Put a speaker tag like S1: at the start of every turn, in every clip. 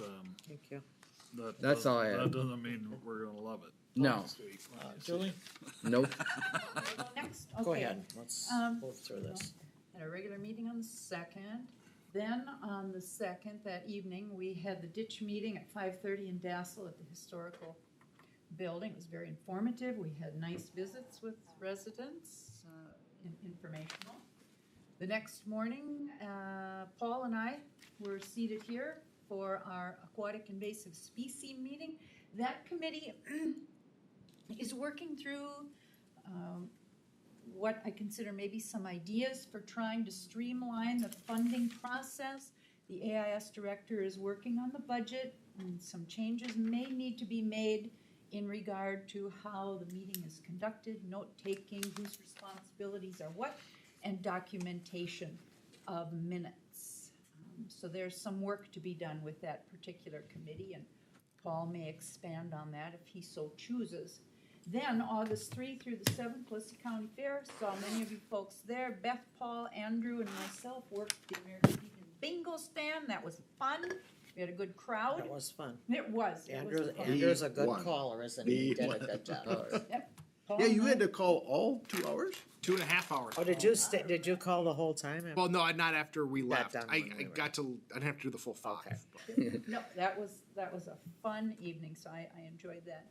S1: um,
S2: Thank you.
S1: that.
S3: That's
S1: doesn't-
S3: all I had.
S1: That doesn't mean we're gonna love it.
S3: No,
S2: Julie?
S3: nope.
S4: Next,
S2: Go
S4: okay.
S2: ahead, let's
S4: Um,
S2: go through this.
S4: At our regular meeting on the second. Then on the second, that evening, we had the ditch meeting at five thirty in Dassel at the historical building. It was very informative. We had nice visits with residents, uh, in- informational. The next morning, uh, Paul and I were seated here for our aquatic invasive species meeting. That committee is working through um, what I consider maybe some ideas for trying to streamline the funding process. The AIS director is working on the budget, and some changes may need to be made in regard to how the meeting is conducted, note-taking, whose responsibilities are what, and documentation of minutes. Um, So there's some work to be done with that particular committee, and Paul may expand on that if he so chooses. Then, August three through the seventh was the county fair, saw many of you folks there, Beth, Paul, Andrew, and myself worked the American Legion bingo stand, that was fun, we had a good crowd,
S2: That was fun.
S4: it was, it was
S2: Andrew,
S4: fun.
S2: Andrew's a
S3: The
S2: good
S3: one.
S2: caller, isn't he? He
S5: The
S2: did a
S5: one.
S2: good job.
S3: Uh,
S4: Paul
S5: Yeah, you
S4: and I-
S5: had
S2: Mm-hmm.
S5: to call all two hours?
S6: Two and a half hours.
S2: Oh, did you stay, did you call the whole time?
S6: Well, no, I- not after we
S2: Got
S6: left.
S2: done
S6: I,
S2: when
S6: I
S2: we were-
S6: got to. I didn't have to do the full five.
S2: Okay.
S4: No, that was, that was a fun evening, so I, I enjoyed that.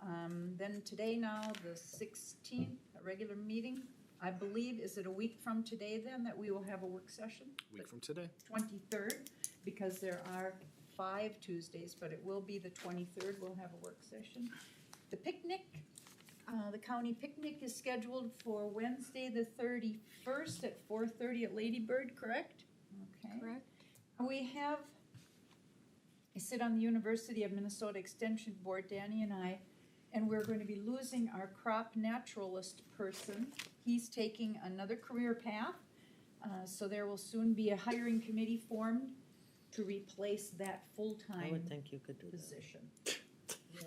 S4: Um, then today now, the sixteenth, a regular meeting, I believe, is it a week from today then that we will have a work session?
S6: Week from today.
S4: Twenty-third, because there are five Tuesdays, but it will be the twenty-third, we'll have a work session. The picnic, uh, the county picnic is scheduled for Wednesday, the thirty-first at four thirty at Lady Bird, correct? Okay.
S7: Correct.
S4: We have, I sit on the University of Minnesota Extension Board, Danny and I, and we're going to be losing our crop naturalist person. He's taking another career path, uh, so there will soon be a hiring committee formed to replace that
S2: I
S4: full-time
S2: would think you could do that.
S4: position. Yeah,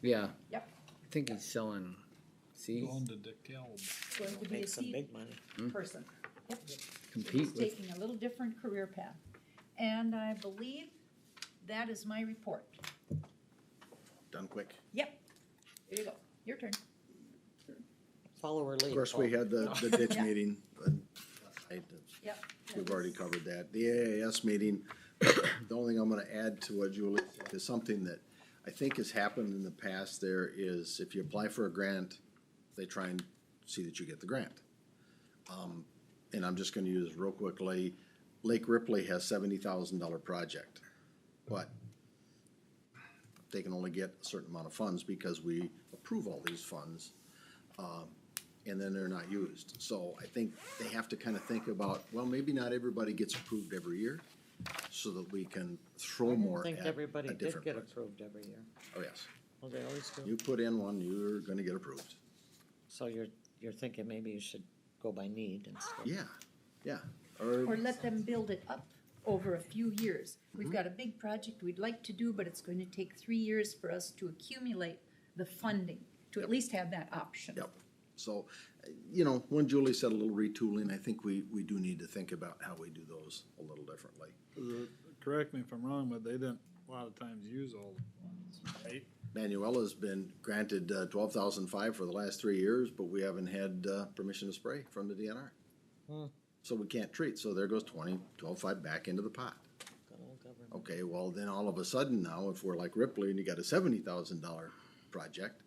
S3: Yeah.
S4: Yep.
S3: I think he's selling seeds.
S1: Going to DeKalb.
S4: it's going to be a
S2: Make some
S4: seat
S2: big money.
S5: Mm.
S4: person. Yep.
S3: Compete
S4: He's
S3: with.
S4: taking a little different career path. And I believe that is my report.
S5: Done quick.
S4: Yep, there you go, your turn.
S2: Follow or lead.
S5: Of course,
S2: Paul.
S5: we had the, the ditch
S4: Yeah.
S5: meeting, and I-
S4: Yep.
S5: we've already covered that. The AAS meeting, the only thing I'm gonna add to what Julie said is something that I think has happened in the past there is if you apply for a grant, they try and see that you get the grant. Um, And I'm just gonna use real quickly, Lake Ripley has seventy thousand dollar project, but they can only get a certain amount of funds because we approve all these funds um, and then they're not used. So I think they have to kind of think about, well, maybe not everybody gets approved every year, so that we can throw more
S2: I
S5: at
S2: think everybody
S5: a
S2: did
S5: different.
S2: get
S5: pro-
S2: approved every year.
S5: Oh, yes.
S2: Well, they always do.
S5: You put in one, you're gonna get approved.
S2: So you're, you're thinking maybe you should go by need instead.
S5: Yeah, yeah.
S4: Or
S5: Or,
S4: let them build it up over a few years. We've
S5: Mm-hmm.
S4: got a big project we'd like to do, but it's going to take three years for us to accumulate the funding, to at
S5: Yep.
S4: least have that option.
S5: yep. So, uh, you know, when Julie said a little retooling, I think we, we do need to think about how we do those a little differently.
S1: Correct me if I'm wrong, but they didn't a lot of times use all the ones, right?
S5: Manuela's been granted uh, twelve thousand five for the last three years, but we haven't had uh, permission to spray from the DNR.
S2: Hmm.
S5: So we can't treat, so there goes twenty, twelve five back into the pot.
S2: Good old government.
S5: Okay, well, then all of a sudden now, if we're like Ripley and you got a seventy thousand dollar project,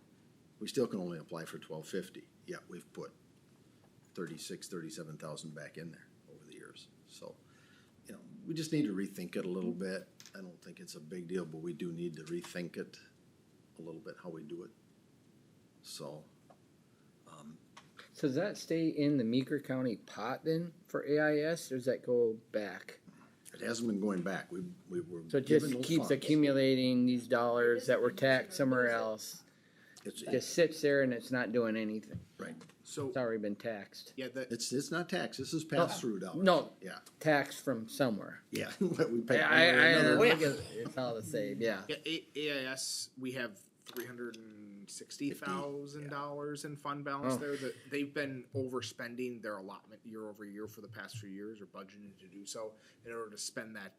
S5: we still can only apply for twelve fifty, yet we've put thirty-six, thirty-seven thousand back in there over the years, so. You know, we just need to rethink it a little bit, I don't think it's a big deal, but we do need to rethink it a little bit, how we do it. So,
S3: So does that stay in the Meeker County pot then for AIS, or does that go back?
S5: it hasn't been going back, we, we were.
S3: So it
S5: given
S3: just
S5: those
S3: keeps
S5: funds.
S3: accumulating these dollars that were taxed somewhere else.
S5: It's,
S3: It Just sits there and it's not doing anything.
S5: right,
S6: So
S3: It's already been taxed.
S6: yeah, that
S5: it's, it's not tax, this is pass-through dollars.
S3: No,
S5: Yeah,
S3: taxed from somewhere.
S5: yeah, we
S3: I,
S5: pay. one way
S3: I,
S5: or
S3: I,
S5: another.
S3: look at- it's all the same, yeah.
S6: yeah, A- AIS we have three hundred and sixty thousand dollars in fund balance
S3: Oh.
S6: there. That they've been overspending their allotment year over year for the past few years, or budgeting to do so in order to spend that